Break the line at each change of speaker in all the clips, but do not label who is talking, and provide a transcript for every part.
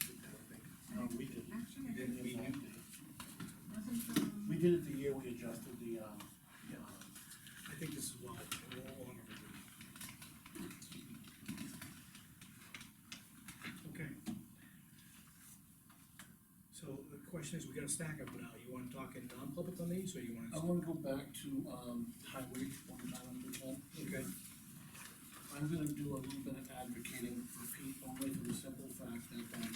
Um, did it the year we adjusted the, um, um,
I think this is well, well honorable. Okay. So the question is, we gotta stack up now, you wanna talk in non-public on these, or you
I
wanna?
wanna go back to, um, highway, one time if we can.
Okay.
I'm gonna do a little bit of advocating for Pete, only for the simple fact that, um,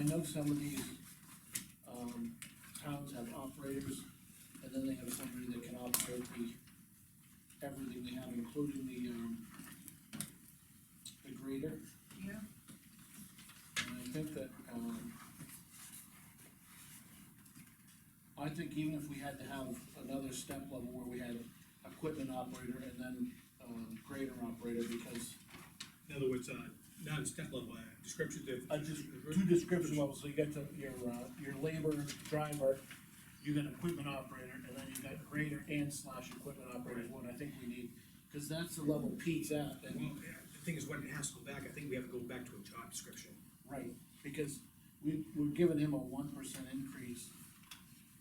I know some of these, um, towns have operators, and then they have somebody that can operate the, everything they have, including the, um, the grader.
Yeah.
And I think that, um, I think even if we had to have another step level where we had equipment operator and then, um, grader operator, because
In other words, uh, not a step level, uh, descriptive.
I just, two description levels, so you got the, your, uh, your labor driver, you got equipment operator, and then you got grader and slash equipment operator is what I think we need, cause that's the level Pete's at, and
Well, yeah, the thing is, when it has to go back, I think we have to go back to a job description.
Right, because we, we're giving him a one percent increase,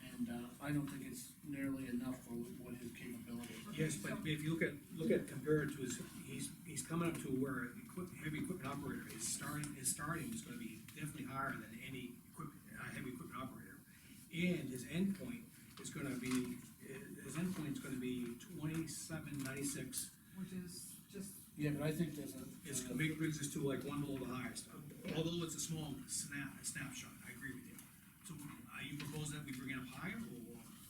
and, uh, I don't think it's nearly enough for what his capability is.
Yes, but if you look at, look at compared to his, he's, he's coming up to where equip, heavy equipment operator is starting, his starting is gonna be definitely higher than any equipment, uh, heavy equipment operator. And his endpoint is gonna be, eh, his endpoint's gonna be twenty-seven ninety-six.
Which is just,
Yeah, but I think there's a.
It's, it brings us to like one below the highest, although it's a small snap, snapshot, I agree with you. So are you proposing that we bring it up higher, or,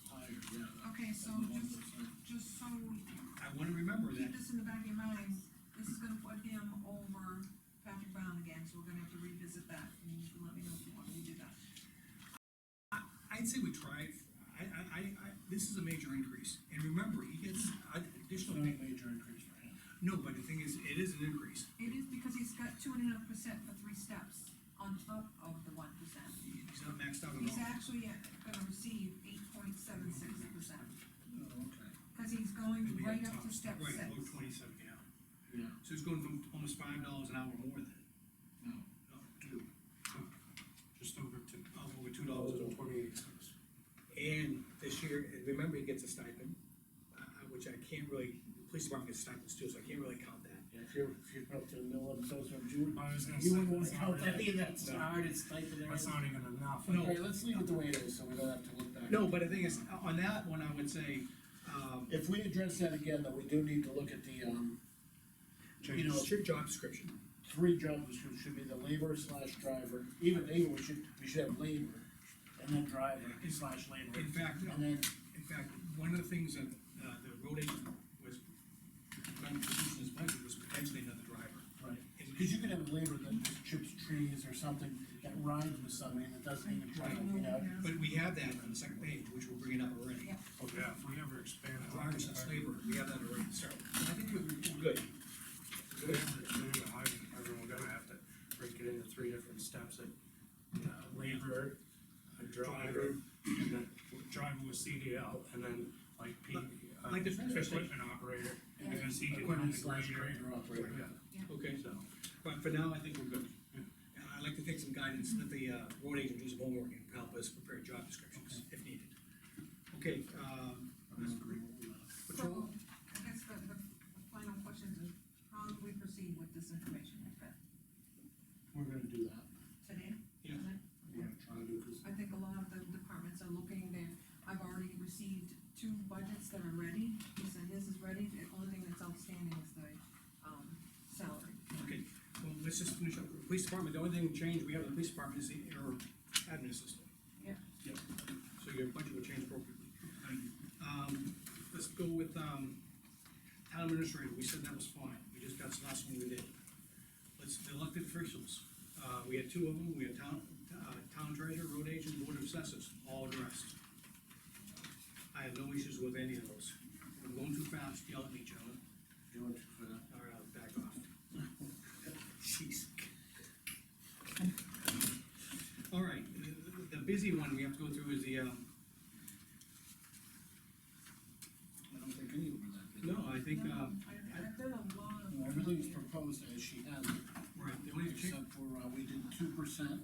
Higher, yeah.
okay, so
than the
just,
1%.
just so,
I wanna remember that
keep this in the back of your mind, this is gonna put him over Patrick Brown again, so we're gonna have to revisit that, and you can let me know if you want me to do that.
I'd say we try, I, I, I, I, this is a major increase, and remember, he gets
It's
additional
not a
pay.
major increase for him.
No, but the thing is, it is an increase.
It is because he's got two and a half percent for three steps on top of the one percent.
He's not maxed out
He's
at all.
actually uh, gonna receive eight point seven six percent,
Oh, okay.
cause he's going
Maybe
right
at
up
top,
to step
Right,
six.
below twenty-seven, yeah.
Yeah,
So he's going from almost five dollars an hour more than,
no,
no,
two.
just over two.
oh, over two dollars.
and twenty-eight cents.
And this year, remember, he gets a stipend, uh, uh, which I can't really, the police department gets stipends too, so I can't really count that.
Yeah, If you're, if you're up to the middle of the social, you would.
I was gonna
You
say,
wouldn't wanna
that's not
count that
really-
either, that's
No.
hard, it's tight and
that's
everything.
not even enough.
No.
Okay, let's leave it the way it is, so we don't have to look back.
No, but the thing is, on that one, I would say, um,
If we address that again, though, we do need to look at the, um, you know,
it's your job description.
three job descriptions should be the labor slash driver, even even we should, we should have labor, and then driver slash labor,
In fact,
and then,
In fact, one of the things that, uh, the road agent was, trying to produce in his budget was potentially another driver.
right. Cause you could have a labor that just chips trees or something that rides with somebody that doesn't even try, you know?
But we have that on the second page, which we'll bring it up already.
Yeah.
Yeah, if we ever expand. it,
Drivers and labor, we have that already, so I think we're, we're good.
If we ever expand the highway department, we're gonna have to break it into three different steps, like, uh, labor, a driver, and then driver with CDL, and then like P. uh,
Like the transfer station.
Equipment operator,
Yeah.
because he can.
Equipment slash grader
Yeah,
operator.
Okay,
so,
but for now, I think we're good. And I'd like to take some guidance, let the, uh, road agent do some homework and help us prepare job descriptions if needed. Okay, um, that's great.
So,
Patrol?
I guess the, the final question is, how do we proceed with this information we've got
We're gonna do that.
today?
Yeah.
We're gonna try to do, cause
I think a lot of the departments are looking, they, I've already received two budgets that are ready, he said his is ready, the only thing that's outstanding is the, um, salary.
Okay, well, let's just finish up. Police department, the only thing we changed, we have in the police department is the error admin system.
Yeah.
Yep. So your budget will change appropriately. Um, let's go with, um, town administrator, we said that was fine, we just, that's the last one we did. Let's, the elected officials, uh, we had two of them, we had town, uh, town treasurer, road agent, board of assessors, all addressed. I have no issues with any of those. If I'm going too fast, yell at me, gentlemen.
do it for that.
All right, I'll back off. Jeez. All right, the, the busy one we have to go through is the, um,
I don't think any of them are that good.
no, I think,
No,
um,
I- I've done a lot of.
Everything's proposed as she has it,
right, the only change,
except for, uh, we did two percent